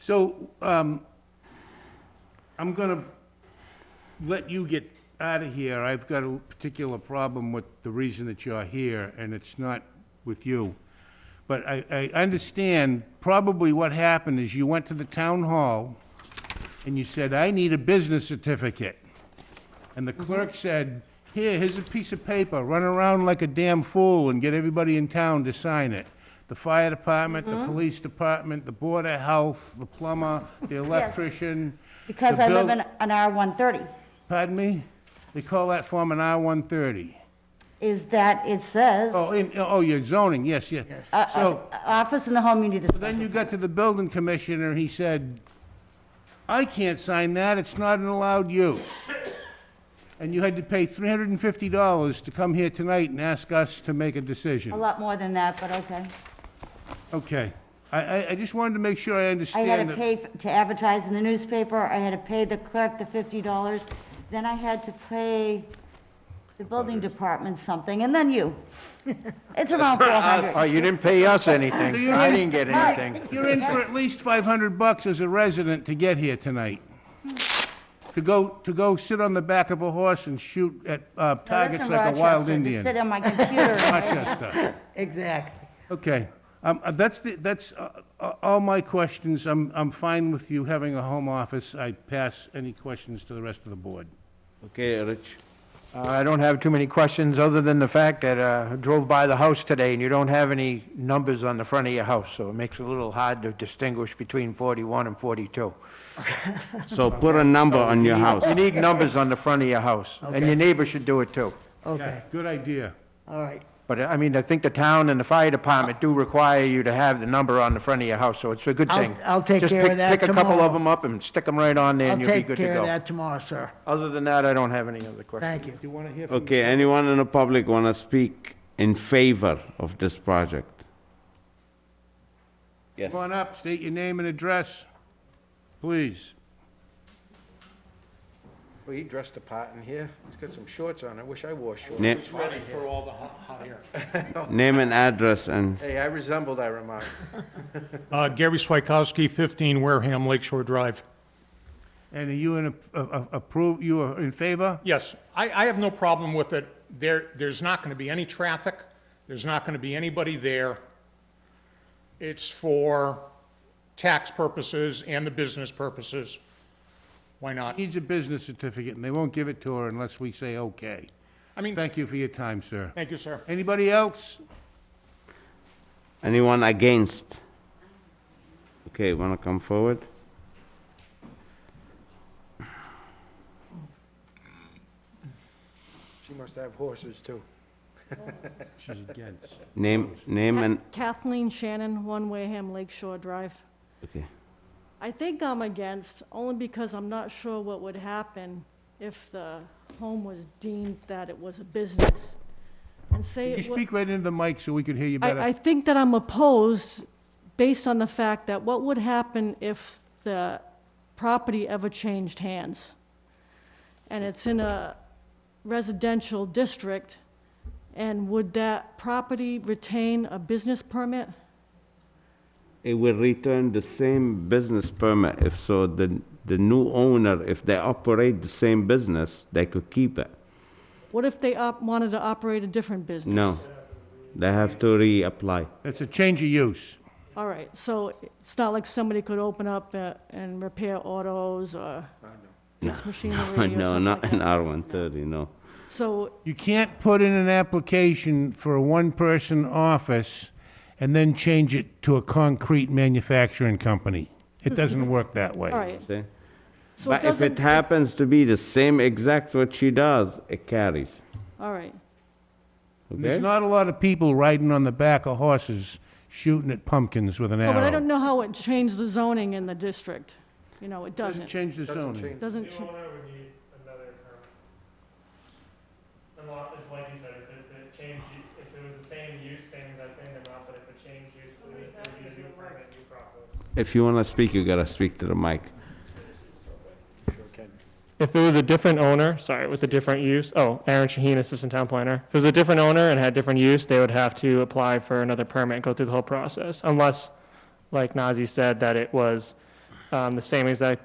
So, um, I'm gonna let you get out of here. I've got a particular problem with the reason that you're here, and it's not with you. But I, I understand probably what happened is you went to the town hall and you said, I need a business certificate. And the clerk said, here, here's a piece of paper, run around like a damn fool and get everybody in town to sign it. The fire department, the police department, the board of health, the plumber, the electrician. Because the I live buil- in an R-130, Pardon me? They call that form an R-130. is that it says, Oh, uh, in, oh, you're zoning, yes, yeah. uh, So office in the home, you need this. then you got to the building commissioner, and he said, I can't sign that, it's not an allowed use. And you had to pay $350 to come here tonight and ask us to make a A decision. lot more than that, but okay. Okay. I, I, I just wanted to make sure I I had understand to that. pay f- to advertise in the newspaper, I had to pay the clerk the fifty dollars, then I had to pay the building department something, and then you. It's around four Oh, hundred. you didn't pay us anything. You I didn't- didn't get anything. You're in for at least 500 bucks as a resident to get here tonight. To go, to go sit on the back of a horse and shoot at uh, targets like a wild Indian. Sit on my computer. Rochester. Exactly. Okay. Um, uh, That's, the- that's uh, uh, all my questions. I'm, I'm fine with you having a home office. I pass any questions to the rest of the board. Okay, Rich. Uh, I don't have too many questions, other than the fact that uh, I drove by the house today, and you don't have any numbers on the front of your house, so it makes it a little hard to distinguish between 41 and 42. So put a number on your house. You need numbers on the front of your house, and your neighbor should do it too. Okay, Good idea. all right. But, I mean, I think the town and the fire department do require you to have the number on the front of your house, so it's a good I'll- thing. I'll take Just care of pick- that Pick a couple tomorrow. of them up and stick them right on there, I'll and you'll be take good to care of go. that tomorrow, sir. Other than that, I don't have any other questions. Thank you. Do you want to hear from? Okay, anyone in the public want to speak in favor of this project? Yes. Come on up, state your name and address, please. Well, he dressed a part in here. He's got some shorts on. I wish I wore shorts. Na- ready for all the hot, hot air. Name and address and, Hey, I resemble that remark. Uh, Gary Swikowski, 15 Wareham Lakeshore Drive. And are you in, a- a- a- approve, you are in favor? Yes, I, I have no problem with it. There, there's not going to be any traffic. There's not going to be anybody there. It's for tax purposes and the business purposes. Why not? Needs a business certificate, and they won't give it to her unless we say okay. I mean, Thank you for your time, sir. thank you, sir. Anybody else? anyone against? Okay, want to come forward? She must have horses, too. She's against. Name, name and, Kathleen Shannon, One Wareham Lakeshore Drive. okay. I think I'm against, only because I'm not sure what would happen if the home was deemed that it was a business. And say, You it wa- speak right into the mic so we can hear you better. I, I think that I'm opposed based on the fact that what would happen if the property ever changed hands? And it's in a residential district, and would that property retain a business permit? It will return the same business permit if so, the, the new owner, if they operate the same business, they could keep it. What if they op, wanted to operate a different business? No, they have to reapply. It's a change of use. All right, so it's not like somebody could open up uh, and repair autos or fix machinery or something No, like not an that. R130, no. So You can't put in an application for a one-person office and then change it to a concrete manufacturing company. It doesn't work that way. All right, See? so it But if it doesn't, happens to be the same exact what she does, it carries. all right, Okay? There's not a lot of people riding on the back of horses shooting at pumpkins with an No, arrow. but I don't know how it changed the zoning in the district, you know, it Doesn't doesn't, change the Doesn't zoning. change. doesn't, New ch- owner would need another permit. Unless, it's like you said, if it, if it changed, u- if it was the same use, same exact thing, then not, but if it changed use, then it would be a new permit, new process. If you wanna speak, you gotta speak to the mic. If it was a different owner, sorry, with a different use, oh, Aaron Shaheen, Assistant Town Planner. If it was a different owner and had different use, they would have to apply for another permit and go through the whole process. Unless, like Nazi said, that it was um, the same exact